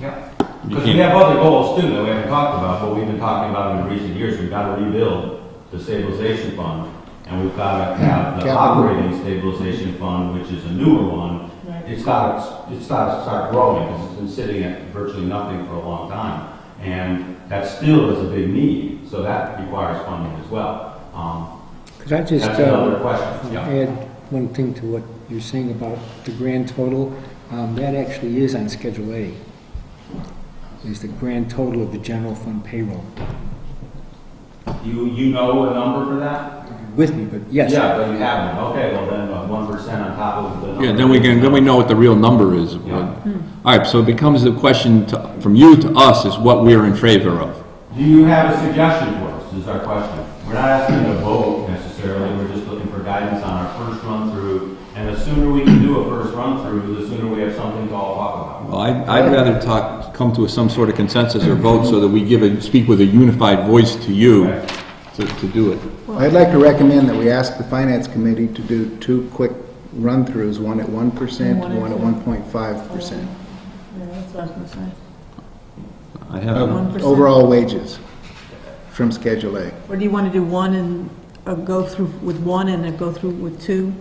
Yeah. You Because we can't- have other goals too that we haven't talked about, but we've been talking about in recent years, we've got to rebuild the stabilization fund. And we've got to have the Capital. operating stabilization fund, which is a newer one. Right. It's got, to- it's got to start growing because it's been sitting at virtually nothing for a long time. And that still is a big need, so that requires funding as well. Um, Could I just That's uh, another question, yeah. add one thing to what you're saying about the grand total? Um, That actually is on Schedule A, is the grand total of the general fund payroll. You, you know a number for that? With me, but yes. Yeah, but you haven't, okay, well then, uh, one percent on top of the number. Yeah, then we can, then we know what the real number is. Yeah. All right, so it becomes the question to- from you to us is what we are in favor of. Do you have a suggestion for us, is our question. We're not asking you to vote necessarily, we're just looking for guidance on our first run-through. And the sooner we can do a first run-through, the sooner we have something to all talk about. Well, I- I'd rather talk, come to some sort of consensus or vote so that we give a, speak with a unified voice to you Okay. to to do it. Well- I'd like to recommend that we ask the finance committee to do two quick run-throughs, one at one percent, One at one at two. one point five percent. Yeah, that's what I was gonna say. I Uh-huh. have, 1%. Overall wages from Schedule A. Or do you want to do one and, uh go through with one and then go through with two?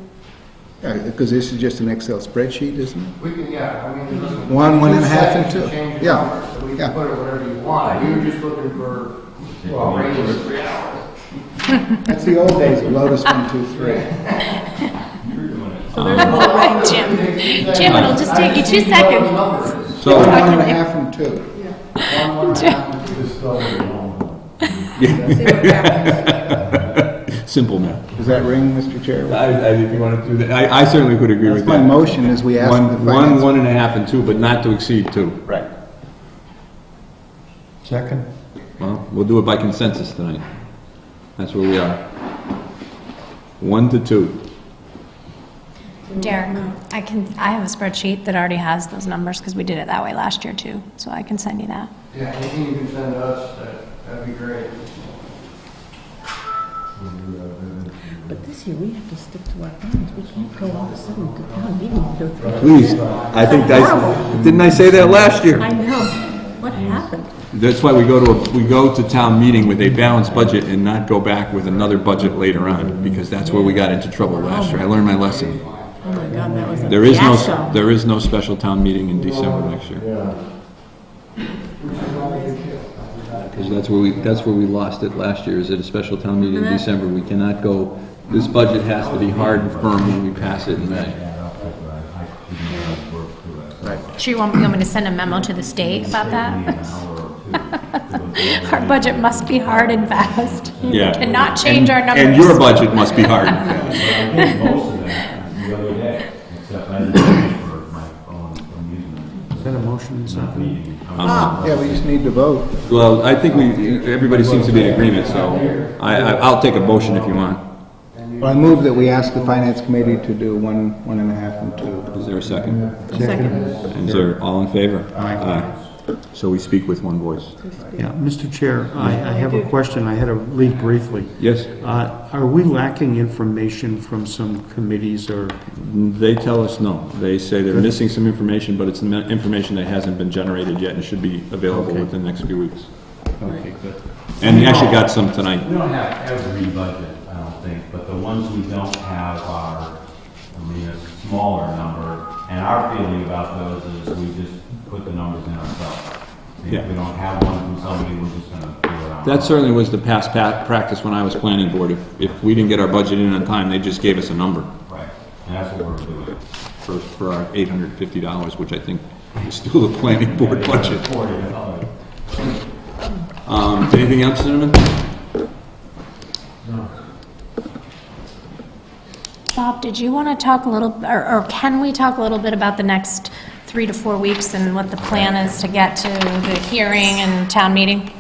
Because Uh, this is just an Excel spreadsheet, isn't it? We can, yeah, I mean, Mm-hmm. listen. One, one and a two half, and seconds two. to change the Yeah, numbers, So we yeah. can put it whatever you want. We were just looking for, well, range of three hours. That's the old days, of Lotus one, two, three. You're doing it. Right, Jim. Jim, it'll just take you two One, seconds. One, so, one and a half, and two. one and a half, and two. simple math. Does that ring, Mr. Chair? I, I, if you want to do that, I, I certainly would agree with That's my that. motion, is we ask the One, one, finance. one and a half and two, but not to exceed two. Right. Second. Well, we'll do it by consensus tonight. That's where we are. One to two. Derek, I can, I have a spreadsheet that already has those numbers because we did it that way last year too, so I can send you that. Yeah, anything you can send us, that, that'd be great. But this year, we have to stick to our plans. We can't go all of a sudden to town meeting and go through. Please, I think I, didn't I say that last year? I know. What happened? That's why we go to, a- we go to town meeting with a balanced budget and not go back with another budget later on, because that's where we got into trouble last year. I learned my lesson. Oh my God, that was a There is no, fiasco. there is no special town meeting in December next year. Because that's where we, that's where we lost it last year, is at a special town meeting in December. We cannot go, this budget has to be hard and firm when we pass it in May. Sure, you want, you want me to send a memo to the state about that? Our budget must be hard and fast. Yeah. Cannot change our And- numbers. And your budget must be hard and fast. But I did most of that the other day, except I didn't pay for my own amusement. Is that a motion? Not meeting. Yeah, we just need to vote. Well, I think we, everybody seems to be in agreement, so I, I- I'll take a motion if you want. I move that we ask the finance committee to do one, one and a half, and two. Is there a second? Second. Is there, all in favor? Aye. So we speak with one voice. Yeah, Mr. Chair, I, I have a question. I had to leave briefly. Yes, Uh, are we lacking information from some committees or, they tell us no. They say they're missing some information, but it's the information that hasn't been generated yet and should be available Okay. within the next few weeks. okay, good. And we actually got some tonight. We don't have every budget, I don't think, but the ones we don't have are, I mean, a smaller number. And our feeling about those is we just put the numbers in ourselves. If we Yeah. don't have one from somebody, we're just gonna figure it out. That certainly was the past pa- practice when I was planning board. If, if we didn't get our budget in on time, they just gave us a number. Right, and that's what we're doing. for, for our eight hundred and fifty dollars, which I think is still the planning board budget. Forty dollars. Um, anything else, Cinnamon? Bob, did you want to talk a little, or, or can we talk a little bit about the next three to four weeks and what the plan is to get to the hearing and town meeting?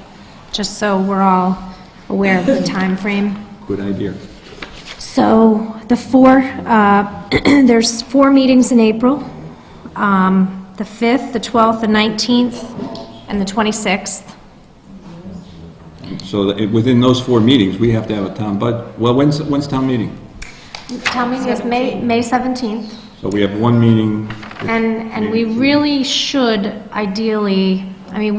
Just so we're all aware of the timeframe. Good idea. So the four, uh, there's four meetings in April, um, the 5th, the 12th, the 19th, and the 26th. So that, within those four meetings, we have to have a town bud, well, when's, when's town meeting? Town meeting is May, May 17th. So we have one meeting And, and we really should ideally, I mean,